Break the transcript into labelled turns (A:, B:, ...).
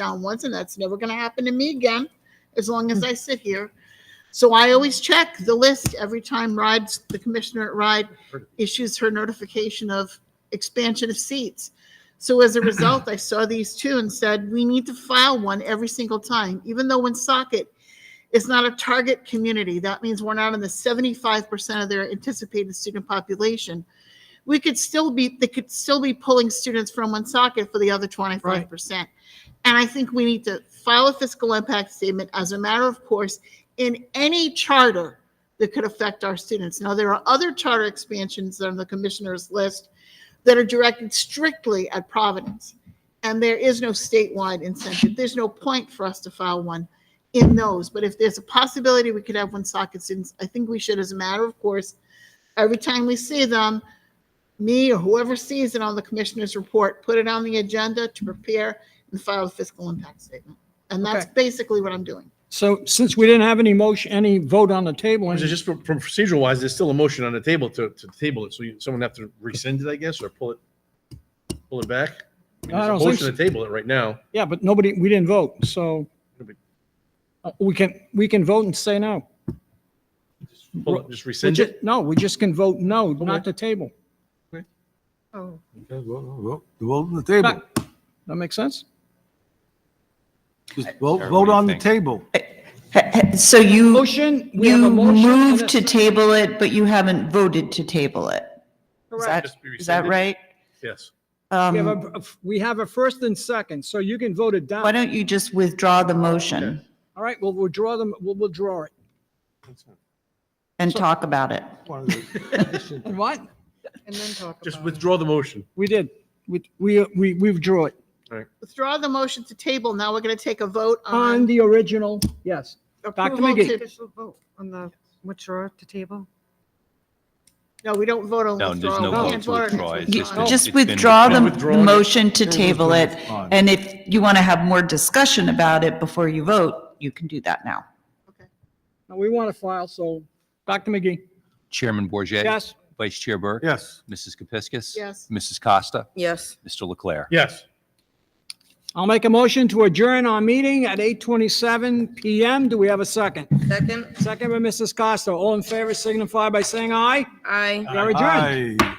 A: downwards, and that's never going to happen to me again as long as I sit here. So I always check the list every time rides, the commissioner at ride issues her notification of expansion of seats. So as a result, I saw these two and said, we need to file one every single time, even though Woonsocket is not a target community. That means we're not in the seventy-five percent of their anticipated student population. We could still be, they could still be pulling students from Woonsocket for the other twenty-five percent. And I think we need to file a fiscal impact statement as a matter of course in any charter that could affect our students. Now, there are other charter expansions on the commissioner's list that are directed strictly at Providence. And there is no statewide incentive. There's no point for us to file one in those. But if there's a possibility we could have one socket students, I think we should, as a matter of course, every time we see them, me or whoever sees it on the commissioner's report, put it on the agenda to prepare and file a fiscal impact statement. And that's
B: Okay.
A: basically what I'm doing.
B: So since we didn't have any motion, any vote on the table,
C: Well, Just from from procedural wise, there's still a motion on the table to, to table it. So you, someone have to rescind it, I guess, or pull it, pull it back. I mean,
B: I
C: There's a
B: don't think
C: motion to table it right now.
B: yeah, but nobody, we didn't vote, so uh, we can, we can vote and say no.
C: Pull it- Just
B: We
C: rescind
B: ju-
C: it.
B: No, we just can vote no, not
C: Okay.
B: the table.
A: Oh.
D: Okay, vote, vote, vote on the table.
B: That that makes sense?
D: Just vote, vote on the table.
E: So you,
B: Motion, we have a
E: you
B: motion. and
E: moved
B: a
E: to
B: second.
E: table it, but you haven't voted to table it. Is that,
C: Just be
E: is that
C: rescinded.
E: right?
C: Yes.
B: We have
E: Um,
B: a, we have a first and second, so you can vote it down.
E: Why don't you just withdraw the motion
B: All right, we'll withdraw them, we'll withdraw it.
E: and talk about it?
B: And what?
A: And then talk
C: Just withdraw the motion.
B: We did. We, we, we we withdrew it
A: Withdraw the motion to table. Now we're going to take a vote
B: on
A: on
B: the original, yes. Dr.
A: Uh-huh. approval
B: McGee.
A: to,
F: Official vote on the withdraw to table?
A: no, we don't vote on
G: No, there's
A: withdrawal.
G: no
A: We
G: vote
A: can't
G: to
A: vote on
G: withdraw.
A: it. Oh,
G: It's
E: You-
G: just no-
E: Just
G: it's been
E: withdraw the the
C: withdrawn.
E: motion to table it,
D: fine.
E: and if you want to have more discussion about it before you vote, you can do that now.
B: Now, we want to file, so, Dr. McGee,
G: Chairman Bourget,
B: yes?
G: Vice Chair Burke.
D: Yes.
G: Mrs. Kepiscus.
A: Yes.
G: Mrs. Costa.
F: Yes.
G: Mr. Leclerc.
C: Yes.
B: I'll make a motion to adjourn our meeting at 8:27 PM. Do we have a second?
F: Second,
B: Second by Mrs. Costa. All in favor signify by saying aye.
F: aye.
B: We are adjourned.
D: Aye.